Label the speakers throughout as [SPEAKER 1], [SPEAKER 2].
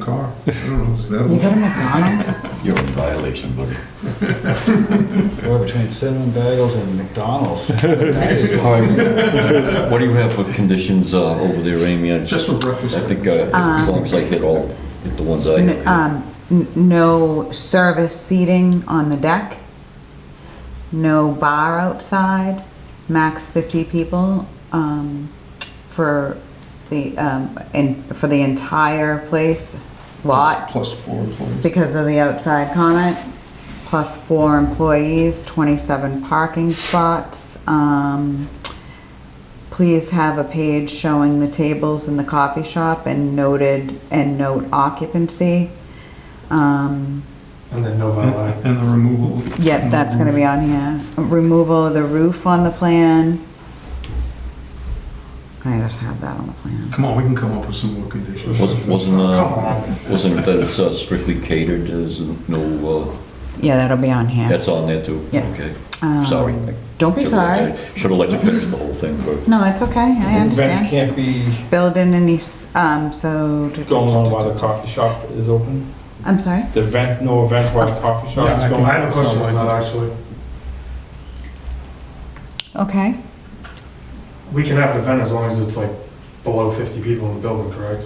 [SPEAKER 1] car. I don't know, is that
[SPEAKER 2] You
[SPEAKER 1] one?
[SPEAKER 2] got a McDonald's?
[SPEAKER 3] You're in violation, buddy.
[SPEAKER 2] Boy, between cinnamon bagels and McDonald's.
[SPEAKER 3] All right, what do you have for conditions uh, over there, Amy? I
[SPEAKER 1] It's Just for breakfast.
[SPEAKER 3] I think, uh, as long as I hit all, hit the ones I
[SPEAKER 4] N-
[SPEAKER 3] have.
[SPEAKER 4] Um, n- no service seating on the deck, no bar outside, max fifty people, um, for the, um, and for the entire place, lot,
[SPEAKER 1] Plus four employees.
[SPEAKER 4] because of the outside comment, plus four employees, twenty-seven parking spots, um, please have a page showing the tables in the coffee shop and noted, and note occupancy. Um,
[SPEAKER 5] And then no
[SPEAKER 1] And
[SPEAKER 5] valet.
[SPEAKER 1] and the removal.
[SPEAKER 4] Yep, that's gonna be on here. Removal of the roof on the plan. I just have that on the plan.
[SPEAKER 1] Come on, we can come up with some more conditions.
[SPEAKER 3] Wasn't, wasn't,
[SPEAKER 5] Come
[SPEAKER 3] uh,
[SPEAKER 5] on.
[SPEAKER 3] wasn't that it's uh, strictly catered, there's no,
[SPEAKER 4] Yeah, that'll be on
[SPEAKER 3] uh,
[SPEAKER 4] here.
[SPEAKER 3] that's on there too?
[SPEAKER 4] Yeah.
[SPEAKER 3] Okay,
[SPEAKER 4] Um,
[SPEAKER 3] sorry.
[SPEAKER 4] Don't be sorry.
[SPEAKER 3] Should've let you finish the whole thing, but
[SPEAKER 4] No, it's okay, I
[SPEAKER 5] Events
[SPEAKER 4] understand.
[SPEAKER 5] can't be
[SPEAKER 4] Building any, s- um, so.
[SPEAKER 5] going on while the coffee shop is open?
[SPEAKER 4] I'm sorry?
[SPEAKER 5] The event, no event while the coffee shop is going on?
[SPEAKER 6] I have a question on that, actually.
[SPEAKER 4] Okay.
[SPEAKER 6] We can have an event as long as it's like below 50 people in the building, correct?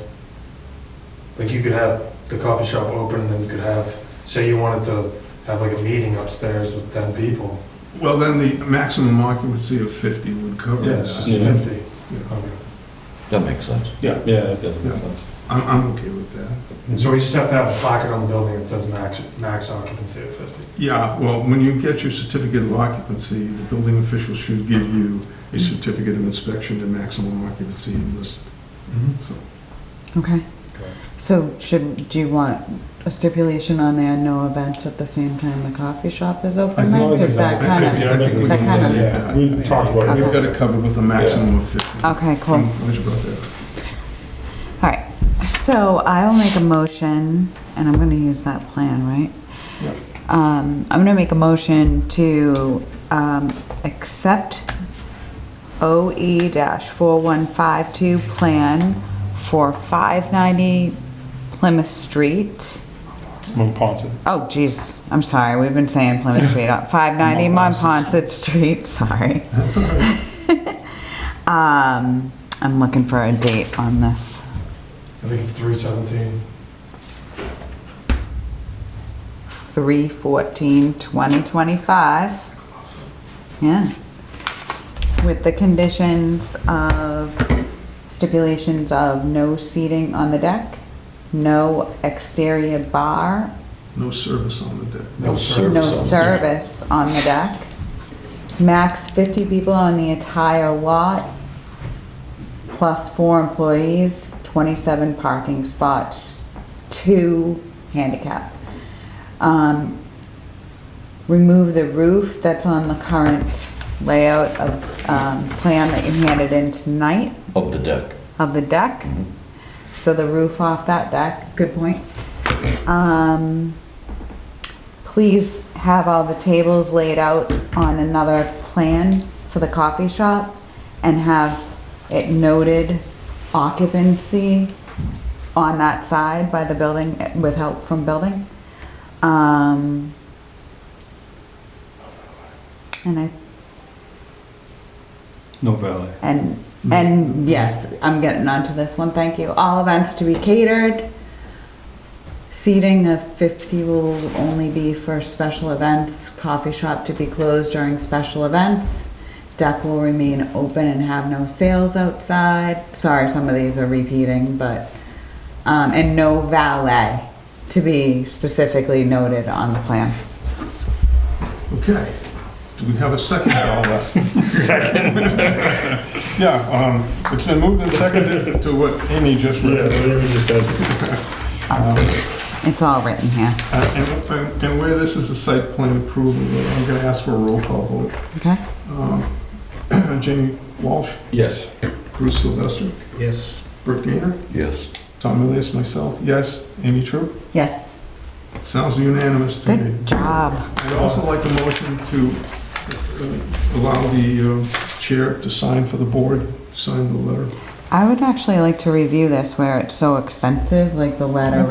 [SPEAKER 6] Like you could have the coffee shop open and then you could have, say you wanted to have like a meeting upstairs with 10 people.
[SPEAKER 1] Well, then the maximum occupancy of 50 would cover
[SPEAKER 6] Yeah, it's just
[SPEAKER 1] that.
[SPEAKER 5] Yeah.
[SPEAKER 6] 50.
[SPEAKER 1] Yeah.
[SPEAKER 6] Okay.
[SPEAKER 3] that makes sense.
[SPEAKER 5] Yeah, it does make
[SPEAKER 1] Yeah.
[SPEAKER 5] sense.
[SPEAKER 1] I'm, I'm okay with that.
[SPEAKER 6] And So we just have to have a plaque on the building that says max, max occupancy of 50.
[SPEAKER 1] Yeah, well, when you get your certificate of occupancy, the building official should give you a certificate of inspection to maximum occupancy in this,
[SPEAKER 2] Mm-hmm.
[SPEAKER 1] so.
[SPEAKER 4] Okay.
[SPEAKER 5] Okay.
[SPEAKER 4] So should, do you want a stipulation on there, no events at the same time the coffee shop is
[SPEAKER 1] I
[SPEAKER 4] open?
[SPEAKER 1] think-
[SPEAKER 4] then? 'Cause
[SPEAKER 5] I think
[SPEAKER 4] that
[SPEAKER 5] that-
[SPEAKER 1] I
[SPEAKER 4] kinda-
[SPEAKER 1] think- I think we
[SPEAKER 4] that
[SPEAKER 1] can
[SPEAKER 4] kind
[SPEAKER 1] do
[SPEAKER 4] of-
[SPEAKER 5] Yeah, we talked about
[SPEAKER 1] We've
[SPEAKER 5] it.
[SPEAKER 1] got it covered with a maximum of 50.
[SPEAKER 4] Okay,
[SPEAKER 1] I'm
[SPEAKER 4] cool.
[SPEAKER 1] glad you brought that up.
[SPEAKER 4] All right, so I'll make a motion, and I'm gonna use that plan, right?
[SPEAKER 1] Yep.
[SPEAKER 4] Um, I'm gonna make a motion to, um, accept OE dash four one five two plan for five ninety Plymouth Street.
[SPEAKER 5] Move Ponson.
[SPEAKER 4] Oh, geez, I'm sorry, we've been saying Plymouth Street, five ninety Monpont Street, sorry.
[SPEAKER 1] That's all right.
[SPEAKER 4] Um, I'm looking for a date on this.
[SPEAKER 6] I think it's 317.
[SPEAKER 4] three fourteen twenty twenty-five. Yeah. With the conditions of, stipulations of no seating on the deck, no exterior bar,
[SPEAKER 1] No service on the deck.
[SPEAKER 3] No service
[SPEAKER 4] no
[SPEAKER 3] on the deck.
[SPEAKER 4] service on the deck, max fifty people on the entire lot, plus four employees, twenty-seven parking spots, two handicap. Um, remove the roof that's on the current layout of, um, plan that you handed in tonight
[SPEAKER 3] Up the deck.
[SPEAKER 4] of the deck. So the roof off that deck, good point. Um, please have all the tables laid out on another plan for the coffee shop and have it noted occupancy on that side by the building, eh, with help from building. Um, and I
[SPEAKER 5] No valet.
[SPEAKER 4] and, and yes, I'm getting onto this one, thank you. All events to be catered. Seating of 50 will only be for special events. Coffee shop to be closed during special events. Deck will remain open and have no sales outside. Sorry, some of these are repeating, but, um, and no valet to be specifically noted on the plan.
[SPEAKER 1] Okay. Do we have a second to all that? Second. Yeah, um, it's been moved and seconded to what Amy just read.
[SPEAKER 5] whatever you said.
[SPEAKER 4] It's all written here,
[SPEAKER 1] Uh, And and- and where this is a site plan approval, I'm going to ask for a roll call vote.
[SPEAKER 4] okay?
[SPEAKER 1] Um, Jamie Walsh,
[SPEAKER 5] Yes.
[SPEAKER 1] Bruce Sylvester,
[SPEAKER 5] Yes.
[SPEAKER 1] Brooke Gainer,
[SPEAKER 3] Yes.
[SPEAKER 1] Tom Elias, myself, yes. Amy True?
[SPEAKER 4] Yes,
[SPEAKER 1] Sounds unanimous to me.
[SPEAKER 4] good job.
[SPEAKER 1] I'd also like a motion to uh, allow the uh, chair to sign for the board, sign the letter.
[SPEAKER 4] I would actually like to review this where it's so extensive, like the letter